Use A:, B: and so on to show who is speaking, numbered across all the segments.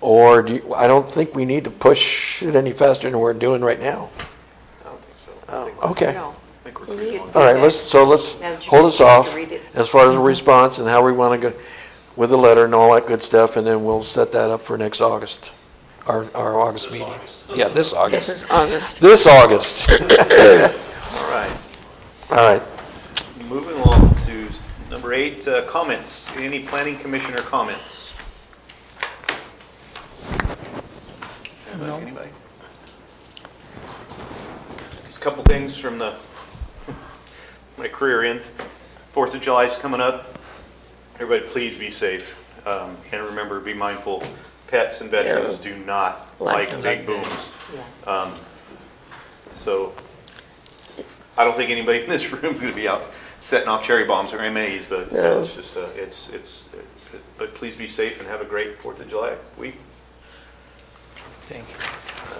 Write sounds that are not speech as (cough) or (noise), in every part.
A: Or do, you- I don't think we need to push it any faster than we're doing right now.
B: I don't think so. I
A: Oh,
B: think-
A: okay.
C: No.
B: I think we're
C: You
B: good
C: could
B: on
C: do
A: All right,
C: that.
A: let's, so let's
C: Now that you
A: hold us
C: have to
A: off
C: read it. Mm-hmm.
A: as far as the response and how we want to go with the letter and all that good stuff, and then we'll set that up for next August, our, our August meeting. Yeah,
C: (laughs)
A: this
C: This
A: August.
C: is August.
A: This August. (laughs)
B: that. All right.
A: All right.
B: Moving along to s- number eight, uh, comments. Any planning commissioner comments? Anybody? Anybody? Just a couple things from the, (laughs) my career in. Fourth of July is coming up. Everybody, please be safe. Um, And remember, be mindful, pets and veterans do not
C: Like
B: like big booms.
C: Yeah.
B: Um, So I don't think anybody in this room is going to be out setting off cherry bombs or MAs, but you know, it's just, uh, it's, it's, but please be safe and have a great Fourth of July week.
D: Thank you.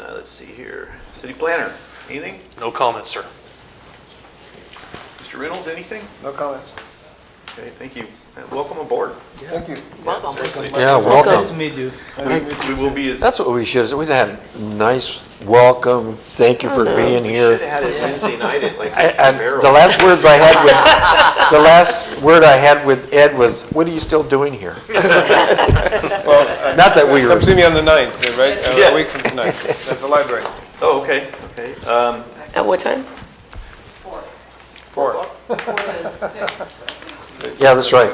B: Uh, Let's see here. City planner, anything?
D: No comments, sir.
B: Mr. Reynolds, anything?
E: No comments.
B: Okay, thank you. And Welcome aboard.
E: Thank you.
C: Welcome.
B: Seriously.
A: Yeah,
E: Nice
A: welcome.
E: to meet you.
B: We will be as.
A: That's what we should, we had nice welcome, thank you for being
B: Should
A: here.
B: have had it Wednesday night at like
A: I-
B: Auntie
A: I-
B: Carol.
A: The last words I had with, the last word I had with Ed was, what are you still doing here?
E: Well,
A: Not that we were.
E: Come see me on the 9th, right? Uh,
B: Yeah.
E: A week from tonight, at the library.
B: Oh, okay, okay. Um,
C: At what time?
E: Four.
A: Yeah, that's right.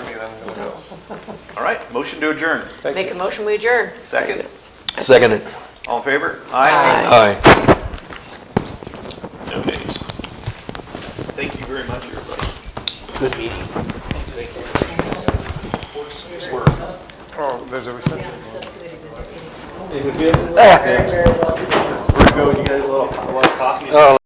B: All right, motion to adjourn.
C: Make a motion, we adjourn.
B: Second,
A: Second it.
B: all in favor? Aye.
A: Aye.
B: No nays. Thank you very much, everybody.
A: Good meeting.
E: Oh, there's a reception.
A: Ah.
B: We're going to get a little, a lot of coffee.